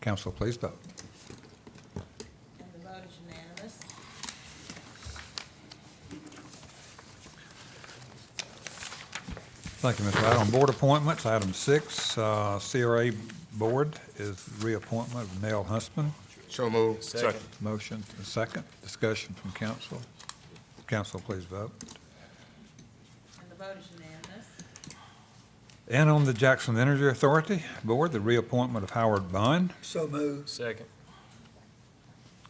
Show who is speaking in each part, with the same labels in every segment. Speaker 1: Council, please vote.
Speaker 2: And the vote is unanimous.
Speaker 1: Thank you, Ms. Wright. On board appointments, item six, uh, CRA Board is reappointment of Nell Huntsman.
Speaker 3: So moved. Second.
Speaker 1: Motion and second. Discussion from council. Council, please vote.
Speaker 2: And the vote is unanimous.
Speaker 1: And on the Jackson Energy Authority Board, the reappointment of Howard Bond.
Speaker 4: So moved.
Speaker 3: Second.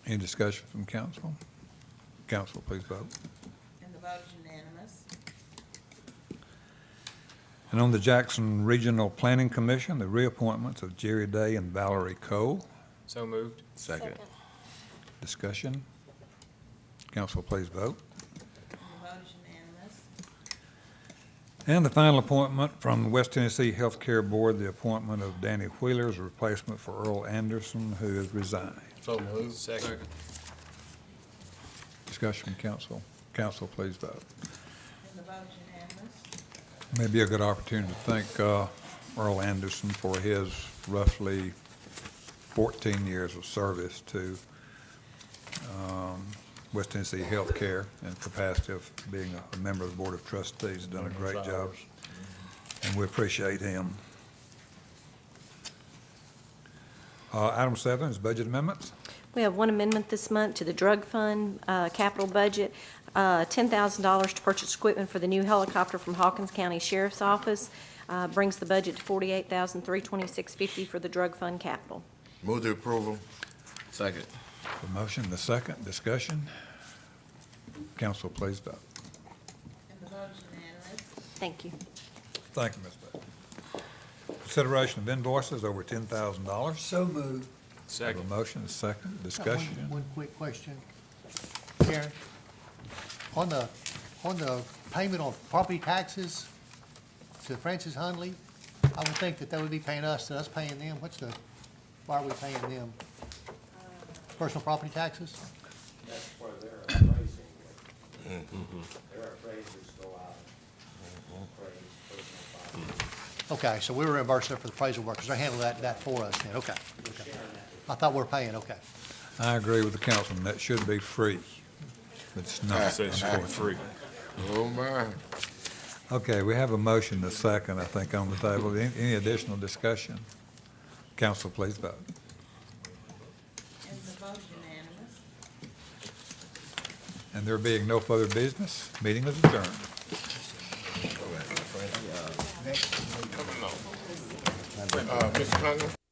Speaker 1: Any discussion from council? Council, please vote.
Speaker 2: And the vote is unanimous.
Speaker 1: And on the Jackson Regional Planning Commission, the reappointments of Jerry Day and Valerie Cole.
Speaker 3: So moved. Second.
Speaker 1: Discussion. Council, please vote.
Speaker 2: And the vote is unanimous.
Speaker 1: And the final appointment from the West Tennessee Healthcare Board, the appointment of Danny Wheeler as a replacement for Earl Anderson, who has resigned.
Speaker 3: So moved. Second.
Speaker 1: Discussion, council. Council, please vote.
Speaker 2: And the vote is
Speaker 1: May
Speaker 2: unanimous.
Speaker 1: be a good opportunity to thank uh, Earl Anderson for his roughly 14 years of service to um, West Tennessee Healthcare in the capacity of being a member of the Board of Trustees. He's Done a great job, and we appreciate him. Uh, Item seven is budget amendments.
Speaker 5: We have one amendment this month to the drug fund uh, capital budget, uh, $10,000 to purchase equipment for the new helicopter from Hawkins County Sheriff's Office, uh, brings the budget to $48,326.50 for the drug fund capital.
Speaker 3: Move to approval. Second.
Speaker 1: The motion, the second, discussion. Council, please vote.
Speaker 2: And the vote is unanimous.
Speaker 5: Thank you.
Speaker 1: Thank you, Ms. Bailey. Consideration of invoices over ten thousand dollars.
Speaker 4: So moved.
Speaker 1: Have a motion, a second,
Speaker 6: Got Uh, one-
Speaker 1: discussion.
Speaker 6: One quick question. Karen, on the, on the payment on property taxes to Francis Hundley, I would think that they would be paying us, and us paying them. What's the, why are we paying them? Personal property taxes?
Speaker 7: That's where their appraising, their appraisers go out and appraise personal property.
Speaker 6: Okay, so we were reimbursed there for the appraisal work, because they handled that, that for us then, okay. okay. I thought we were paying, okay.
Speaker 1: I agree with the councilman, that should be free. It's not, unfortunately.
Speaker 3: Oh, my.
Speaker 1: Okay, we have a motion, a second, I think, on the table. Any any additional discussion? Council, please vote.
Speaker 2: And the vote is unanimous.
Speaker 1: And there being no further business, meeting is adjourned.
Speaker 3: Uh, Mr. Conlon?